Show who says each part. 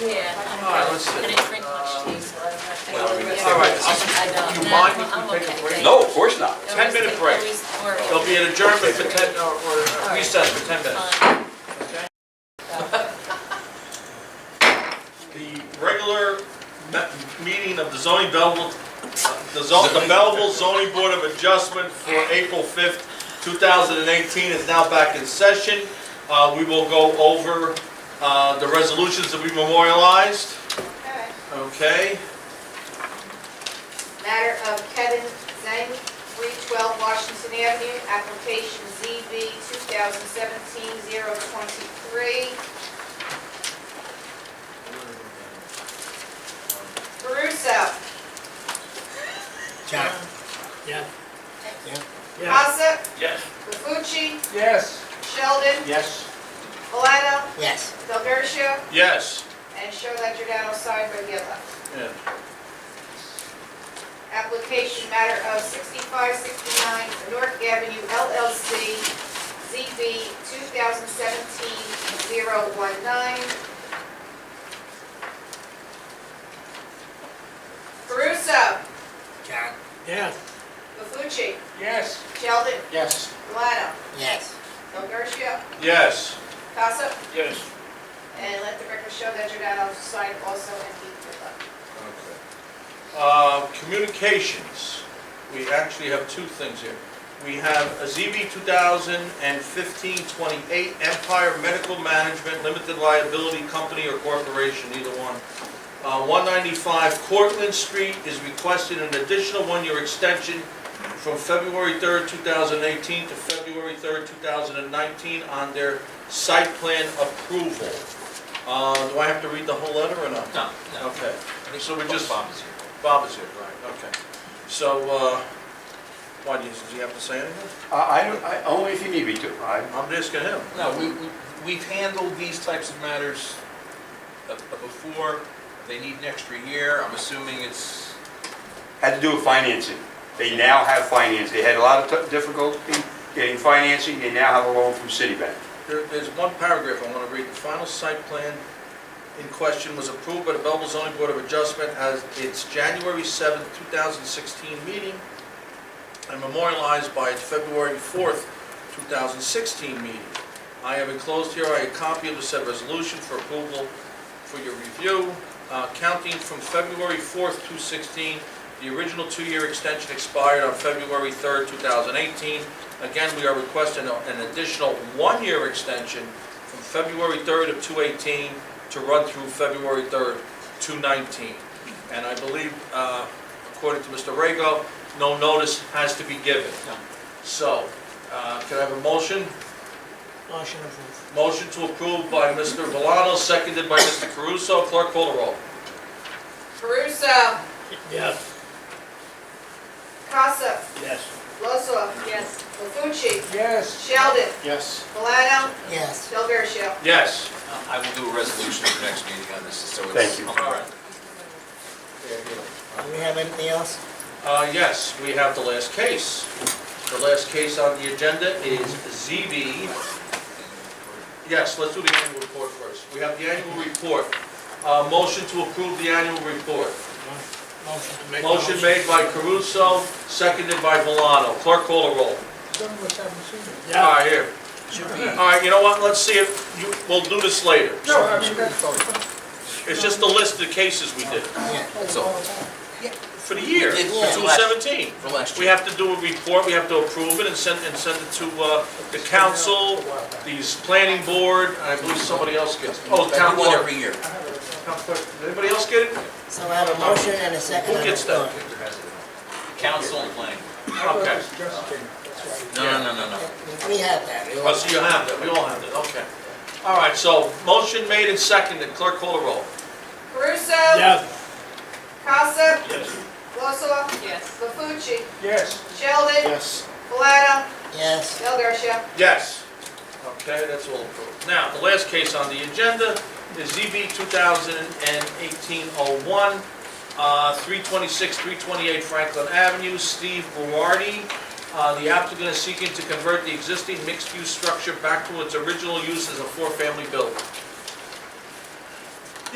Speaker 1: Yeah. I'm
Speaker 2: All right,
Speaker 1: good.
Speaker 2: let's
Speaker 1: I
Speaker 2: see.
Speaker 1: didn't drink much tea, so I'm not. I
Speaker 2: Well, we-
Speaker 1: really-
Speaker 2: all
Speaker 1: I
Speaker 2: right,
Speaker 1: don't.
Speaker 2: do you
Speaker 1: No,
Speaker 2: mind if
Speaker 1: I'm
Speaker 2: we take a
Speaker 1: okay,
Speaker 2: break?
Speaker 1: thank you.
Speaker 3: No, of course not.
Speaker 1: Always
Speaker 2: 10-minute
Speaker 1: take-
Speaker 2: break.
Speaker 1: always worry.
Speaker 2: There'll be an adjournment for ten, or or a recess for ten minutes.
Speaker 1: Fine.
Speaker 2: okay? The regular me- meeting of the zoning Belleville, the zon- the Belleville zoning board of adjustment for April fifth, two thousand and eighteen is now back in session. Uh, we will go over, uh, the resolutions that we memorialized,
Speaker 4: Alright.
Speaker 2: okay?
Speaker 4: Matter of Kevin Zhang, 312 Washington Avenue, application ZB 2017-023. Caruso,
Speaker 5: Yeah, yeah, yeah.
Speaker 4: Casa,
Speaker 2: Yes.
Speaker 4: Lefucci,
Speaker 5: Yes.
Speaker 4: Sheldon,
Speaker 5: Yes.
Speaker 4: Valado,
Speaker 5: Yes.
Speaker 4: Del Garcia,
Speaker 2: Yes.
Speaker 4: and Charlotte Giordano signed by Gila.
Speaker 2: Yeah.
Speaker 4: Application matter of 6569 North Avenue LLC, ZB 2017-019. Caruso,
Speaker 5: Yeah. Yes.
Speaker 4: Mafucci,
Speaker 5: Yes.
Speaker 4: Sheldon,
Speaker 5: Yes.
Speaker 4: Valado,
Speaker 5: Yes.
Speaker 4: Del Garcia,
Speaker 2: Yes.
Speaker 4: Casa,
Speaker 2: Yes.
Speaker 4: and let the record show that Giordano signed also and he did not.
Speaker 2: Uh, Communications, we actually have two things here. We have a ZB 2015-28 Empire Medical Management Limited Liability Company or Corporation, either one. Uh, 195 Cortlandt Street is requesting an additional one-year extension from February 3rd, 2018 to February 3rd, 2019 on their site plan approval. Uh, Do I have to read the whole letter or not?
Speaker 6: No, no.
Speaker 2: Okay, so we just,
Speaker 6: Bob is here.
Speaker 2: Bob is here, right, okay. So, uh, why, do you- does he have to say anything?
Speaker 7: I, I don't, I, only if you need me to, I,
Speaker 2: I'm asking him.
Speaker 6: No, we, we- we've handled these types of matters uh, uh, before. They need an extra year. I'm assuming it's,
Speaker 7: had to do with financing. They now have finance, they had a lot of t- difficulty getting financing, they now have a loan from Citibank.
Speaker 2: There, there's one paragraph I want to read. The final site plan in question was approved by the Belleville zoning board of adjustment as its January seventh, two thousand sixteen meeting and memorialized by its February fourth, two thousand sixteen meeting. I have enclosed here a copy of the said resolution for approval for your review. Uh, counting from February fourth, two sixteen, the original two-year extension expired on February third, two thousand eighteen. Again, we are requesting a- an additional one-year extension from February 3rd of 218 to run through February 3rd, 219. And I believe, uh, according to Mr. Rego, no notice has to be given.
Speaker 6: No.
Speaker 2: So, uh, can I have a motion?
Speaker 5: Motion approved.
Speaker 2: Motion to approve by Mr. Valano, seconded by Mr. Caruso. Clerk, call the roll.
Speaker 4: Caruso,
Speaker 5: Yes.
Speaker 4: Casa,
Speaker 5: Yes.
Speaker 4: Lozo,
Speaker 1: Yes.
Speaker 4: Lefucci,
Speaker 5: Yes.
Speaker 4: Sheldon,
Speaker 5: Yes.
Speaker 4: Valado,
Speaker 5: Yes.
Speaker 4: Del Garcia.
Speaker 2: Yes.
Speaker 6: Uh, I will do a resolution for next meeting on this, so it's.
Speaker 7: Thank you.
Speaker 6: All right.
Speaker 5: Do we have anything else?
Speaker 2: Uh, yes, we have the last case. The last case on the agenda is ZB Yes, let's do the annual report first. We have the annual report. Uh, Motion to approve the annual report.
Speaker 5: Motion to make.
Speaker 2: Motion made by Caruso, seconded by Valano. Clerk call the roll. All
Speaker 5: Yeah.
Speaker 2: right, here. All right, you know what, let's see if, you- we'll do this later. It's just the list of cases we did
Speaker 6: That's all.
Speaker 2: for the year,
Speaker 6: We did
Speaker 2: for
Speaker 6: two
Speaker 2: 2017.
Speaker 6: For last
Speaker 2: We
Speaker 6: year.
Speaker 2: have to do a report, we have to approve it and send, and send it to uh, the council, these planning board, and I believe somebody else gets, oh,
Speaker 6: We
Speaker 2: town
Speaker 6: do it
Speaker 2: clerk.
Speaker 6: every year.
Speaker 2: Town clerk. Did Anybody else get it?
Speaker 8: So I have a motion and a second.
Speaker 2: Who gets that?
Speaker 6: Council and planning.
Speaker 2: Okay.
Speaker 6: No, no, no, no, no.
Speaker 8: We have that. We
Speaker 2: Oh, so you have that, we all have that, okay. All right, so motion made and seconded, clerk call the roll.
Speaker 4: Caruso.
Speaker 5: Yes.
Speaker 4: Casa,
Speaker 2: Yes.
Speaker 4: Lozowa,
Speaker 1: Yes.
Speaker 4: Lefucci,
Speaker 5: Yes.
Speaker 4: Sheldon,
Speaker 5: Yes.
Speaker 4: Valado,
Speaker 8: Yes.
Speaker 4: Del Garcia.
Speaker 2: Yes. Okay, that's all approved. Now, the last case on the agenda is ZB 2018-01, uh, 326, 328 Franklin Avenue, Steve Guardi. Uh, The applicant is seeking to convert the existing mixed-use structure back to its original use as a four-family building.